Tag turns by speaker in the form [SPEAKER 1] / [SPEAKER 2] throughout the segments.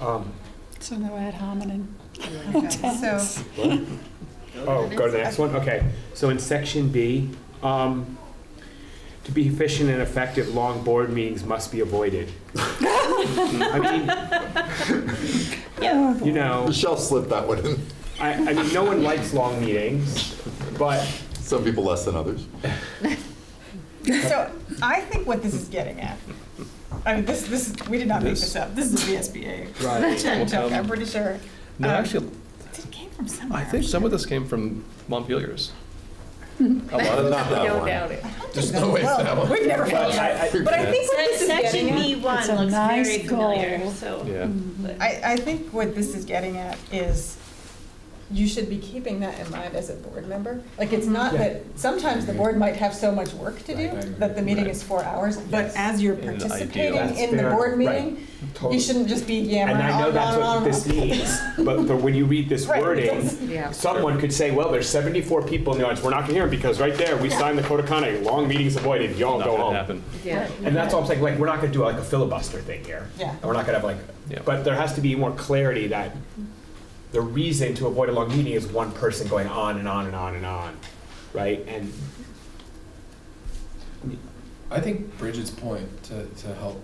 [SPEAKER 1] Um,
[SPEAKER 2] So no ad hominem.
[SPEAKER 3] So,
[SPEAKER 1] what? Oh, go to the next one? Okay. So in section B, um, to be efficient and effective, long board meetings must be avoided. I
[SPEAKER 2] Oh,
[SPEAKER 1] mean, you know,
[SPEAKER 4] Michelle slipped that one in.
[SPEAKER 1] I, I mean, no one likes long meetings, but
[SPEAKER 4] Some people less than others.
[SPEAKER 3] so I think what this is getting at, I mean, this, this, is- we did not make this up. This is VSBA.
[SPEAKER 5] Right.
[SPEAKER 3] Turn talk, I'm
[SPEAKER 5] Um,
[SPEAKER 3] pretty sure.
[SPEAKER 5] No,
[SPEAKER 3] Um,
[SPEAKER 5] actually,
[SPEAKER 3] It came from somewhere.
[SPEAKER 5] I think some of this came from Montpelier's. A lot of
[SPEAKER 4] Not
[SPEAKER 6] Oh,
[SPEAKER 4] that one.
[SPEAKER 7] it.
[SPEAKER 4] There's no way it's that one.
[SPEAKER 3] We've never
[SPEAKER 1] Well,
[SPEAKER 3] found
[SPEAKER 1] I-
[SPEAKER 3] out.
[SPEAKER 1] I-
[SPEAKER 3] But I think what this is
[SPEAKER 7] Section
[SPEAKER 3] getting at,
[SPEAKER 7] B one
[SPEAKER 2] It's a
[SPEAKER 7] looks
[SPEAKER 2] nice
[SPEAKER 7] very familiar,
[SPEAKER 2] goal.
[SPEAKER 7] so.
[SPEAKER 5] Yeah.
[SPEAKER 2] Mm.
[SPEAKER 3] I, I think what this is getting at is you should be keeping that in mind as a board member. Like, it's not
[SPEAKER 1] Yeah.
[SPEAKER 3] that, sometimes the board might have so much work to do
[SPEAKER 1] Right, right,
[SPEAKER 3] that the meeting
[SPEAKER 5] right.
[SPEAKER 3] is four hours, but
[SPEAKER 5] Yes.
[SPEAKER 3] as you're
[SPEAKER 5] In the ideal.
[SPEAKER 3] participating
[SPEAKER 5] That's
[SPEAKER 3] in the
[SPEAKER 1] fair. Right.
[SPEAKER 3] board meeting, you shouldn't just be
[SPEAKER 1] And
[SPEAKER 3] yammering
[SPEAKER 1] I know
[SPEAKER 3] on and
[SPEAKER 1] that's
[SPEAKER 3] on and
[SPEAKER 1] what
[SPEAKER 3] on.
[SPEAKER 1] this means, but, but when you read this
[SPEAKER 3] Right, it
[SPEAKER 1] wording,
[SPEAKER 3] doesn't-
[SPEAKER 7] Yeah.
[SPEAKER 1] someone could say, well, there's 74 people in the audience, we're not gonna hear them because right there, we signed the code of conduct, long meetings avoided, y'all
[SPEAKER 5] Not
[SPEAKER 1] go
[SPEAKER 5] gonna
[SPEAKER 1] home.
[SPEAKER 5] happen.
[SPEAKER 7] Yeah.
[SPEAKER 1] And that's all I'm saying, like, we're not gonna do like a filibuster thing here.
[SPEAKER 3] Yeah.
[SPEAKER 1] And we're not gonna have like,
[SPEAKER 5] Yeah.
[SPEAKER 1] but there has to be more clarity that the reason to avoid a long meeting is one person going on and on and on and on, right? And
[SPEAKER 6] I think Bridget's point to, to help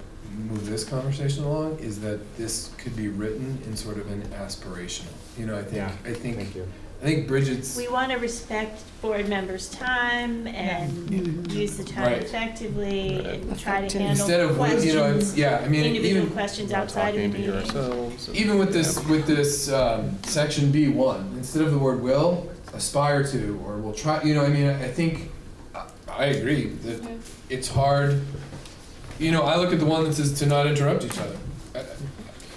[SPEAKER 6] move this conversation along is that this could be written in sort of an aspirational. You know, I think
[SPEAKER 1] Yeah,
[SPEAKER 6] I think
[SPEAKER 1] thank you.
[SPEAKER 6] I think Bridget's
[SPEAKER 7] We want to respect board members' time and use the time
[SPEAKER 6] Right.
[SPEAKER 7] effectively and try to
[SPEAKER 2] Effective.
[SPEAKER 6] instead
[SPEAKER 7] handle
[SPEAKER 6] of what you know it's,
[SPEAKER 7] questions,
[SPEAKER 6] yeah, I mean
[SPEAKER 7] individual
[SPEAKER 6] even
[SPEAKER 7] questions
[SPEAKER 5] We're not
[SPEAKER 7] outside of the
[SPEAKER 5] talking to
[SPEAKER 7] meeting.
[SPEAKER 5] ourselves and-
[SPEAKER 6] even with this
[SPEAKER 5] Yeah.
[SPEAKER 6] with this um, section B one, instead of the word will, aspire to or will try you know, I mean I, I think I, I agree that it's hard you know, I look at the one that says to not interrupt each other. I- I-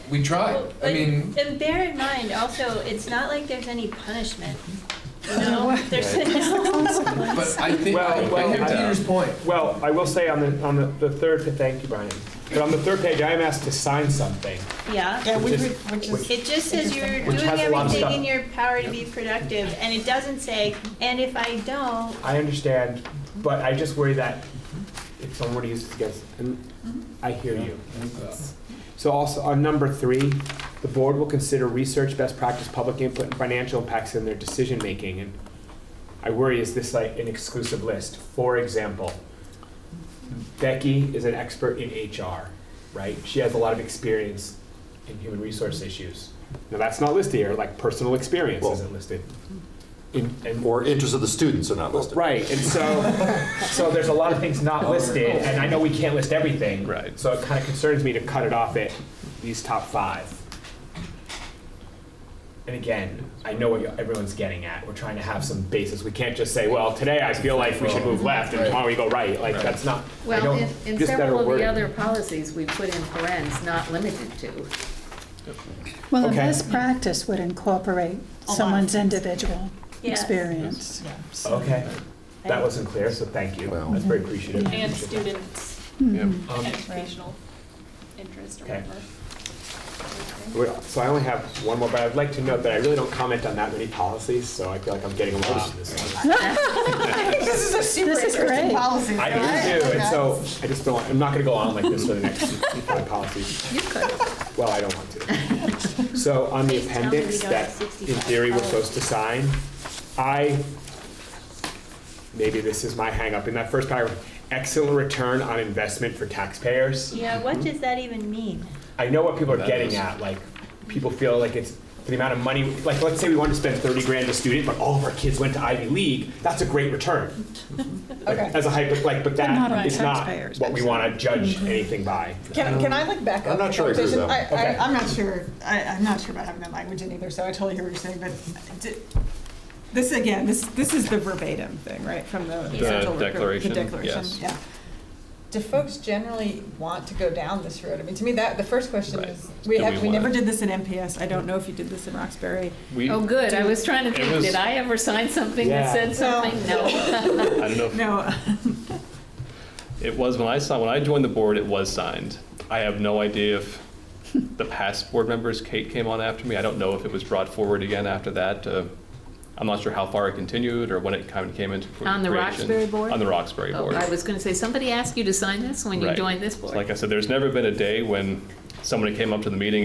[SPEAKER 6] We tried.
[SPEAKER 7] Well,
[SPEAKER 6] I
[SPEAKER 7] but-
[SPEAKER 6] mean
[SPEAKER 7] And bear in mind, also, it's not like there's any punishment, you know? There's no
[SPEAKER 6] But I think,
[SPEAKER 1] Well,
[SPEAKER 6] I
[SPEAKER 1] well,
[SPEAKER 6] I hear
[SPEAKER 1] I- uh,
[SPEAKER 6] Peter's point.
[SPEAKER 1] Well, I will say on the, on the, the third, thank you, Brian, but on the third page, I am asked to sign something.
[SPEAKER 3] Yeah,
[SPEAKER 7] Yeah.
[SPEAKER 3] which,
[SPEAKER 1] Which is-
[SPEAKER 3] which is.
[SPEAKER 7] It just says you're
[SPEAKER 1] Which
[SPEAKER 7] doing
[SPEAKER 1] has a lot of
[SPEAKER 7] everything
[SPEAKER 1] stuff.
[SPEAKER 7] in your power to be productive, and it doesn't say, and if I don't,
[SPEAKER 1] I understand, but I just worry that if someone were to use it against, and I hear you. So also, on number three, the board will consider research, best practice, public input, and financial impacts in their decision-making. And I worry, is this like an exclusive list? For example, Becky is an expert in HR, right? She has a lot of experience in human resource issues. Now, that's not listed here, like personal experience
[SPEAKER 4] Well-
[SPEAKER 1] isn't listed. In- and-
[SPEAKER 4] Or interests of the students are not listed.
[SPEAKER 1] Right, and so, so there's a lot of things not listed, and I know we can't list everything.
[SPEAKER 5] Right.
[SPEAKER 1] So it kind of concerns me to cut it off at these top five. And again, I know what everyone's getting at, we're trying to have some basis, we can't just say, well, today I feel like we should move left, and tomorrow we go right, like, that's not, I
[SPEAKER 8] Well,
[SPEAKER 1] don't,
[SPEAKER 8] in, in
[SPEAKER 1] just better
[SPEAKER 8] several of
[SPEAKER 1] wording.
[SPEAKER 8] the other policies, we put in parens, not limited to.
[SPEAKER 2] Well, the
[SPEAKER 1] Okay.
[SPEAKER 2] best practice would incorporate
[SPEAKER 3] A lot.
[SPEAKER 2] someone's individual
[SPEAKER 7] Yeah.
[SPEAKER 2] experience.
[SPEAKER 3] Yeah.
[SPEAKER 1] Okay, that wasn't clear, so thank you,
[SPEAKER 4] Well-
[SPEAKER 1] that's very appreciative.
[SPEAKER 9] And students'
[SPEAKER 5] Yeah.
[SPEAKER 8] Hmm.
[SPEAKER 1] Um,
[SPEAKER 9] educational interest or
[SPEAKER 1] Okay.
[SPEAKER 9] whatever.
[SPEAKER 1] Well, So I only have one more, but I'd like to note that I really don't comment on that many policies, so I feel like I'm getting a lot on this one.
[SPEAKER 3] I think this is a super
[SPEAKER 2] This is
[SPEAKER 3] interesting
[SPEAKER 2] great.
[SPEAKER 3] policy.
[SPEAKER 1] I do too, and so I just don't, I'm not gonna go on like this for the next five policies.
[SPEAKER 8] You could.
[SPEAKER 1] Well, I don't want to. So on the
[SPEAKER 7] Please tell me
[SPEAKER 1] appendix
[SPEAKER 7] we don't have Oh.
[SPEAKER 1] that in
[SPEAKER 7] 65
[SPEAKER 1] theory we're
[SPEAKER 7] colors.
[SPEAKER 1] supposed to sign, I, maybe this is my hangup, in that first paragraph, excellent return on investment for taxpayers.
[SPEAKER 7] Yeah, what does that even mean?
[SPEAKER 1] I know what people are
[SPEAKER 5] That
[SPEAKER 1] getting
[SPEAKER 5] is-
[SPEAKER 1] at, like, people feel like it's, for the amount of money, like, let's say we wanted to spend thirty grand a student, but all of our kids went to Ivy League, that's a great return. Like,
[SPEAKER 3] Okay.
[SPEAKER 1] As a hyper, like, but
[SPEAKER 2] not on
[SPEAKER 1] that is not
[SPEAKER 2] taxpayers,
[SPEAKER 1] what we wanna judge anything by.
[SPEAKER 3] Can, can I like back up?
[SPEAKER 4] I'm not
[SPEAKER 3] the
[SPEAKER 4] sure I agree with
[SPEAKER 3] conversation?
[SPEAKER 4] that
[SPEAKER 1] one.
[SPEAKER 3] I,
[SPEAKER 1] Okay.
[SPEAKER 3] I, I'm not sure, I, I'm not sure about having that language in either, so I totally hear what you're saying, but di- this, again, this, this is the verbatim thing, right, from the.
[SPEAKER 5] The
[SPEAKER 3] central rec-
[SPEAKER 5] declaration,
[SPEAKER 3] The declaration,
[SPEAKER 5] yes.
[SPEAKER 3] yeah. Do folks generally want to go down this road? I mean, to me, that, the first question
[SPEAKER 5] Right.
[SPEAKER 3] is, we
[SPEAKER 5] Do
[SPEAKER 3] have,
[SPEAKER 5] we
[SPEAKER 3] we
[SPEAKER 5] wanna-
[SPEAKER 3] never did this in MPS, I don't know if you did this in Roxbury.
[SPEAKER 5] We,
[SPEAKER 8] Oh, good, I was trying to
[SPEAKER 5] It
[SPEAKER 8] think,
[SPEAKER 5] was-
[SPEAKER 8] did I ever sign something
[SPEAKER 1] Yeah.
[SPEAKER 8] that said something? No.
[SPEAKER 5] I don't know, if-
[SPEAKER 3] No,
[SPEAKER 5] it was when I saw, when I joined the board, it was signed. I have no idea if the past board members, Kate came on after me, I don't know if it was brought forward again after that. uh, I'm not sure how far it continued or when it kind of came into fruition.
[SPEAKER 8] On the Roxbury board?
[SPEAKER 5] On the Roxbury
[SPEAKER 8] Oh,
[SPEAKER 5] board.
[SPEAKER 8] I was gonna say, somebody asked you to sign this when you
[SPEAKER 5] Right.
[SPEAKER 8] joined this board?
[SPEAKER 5] Like I said, there's never been a day when somebody came up to the meeting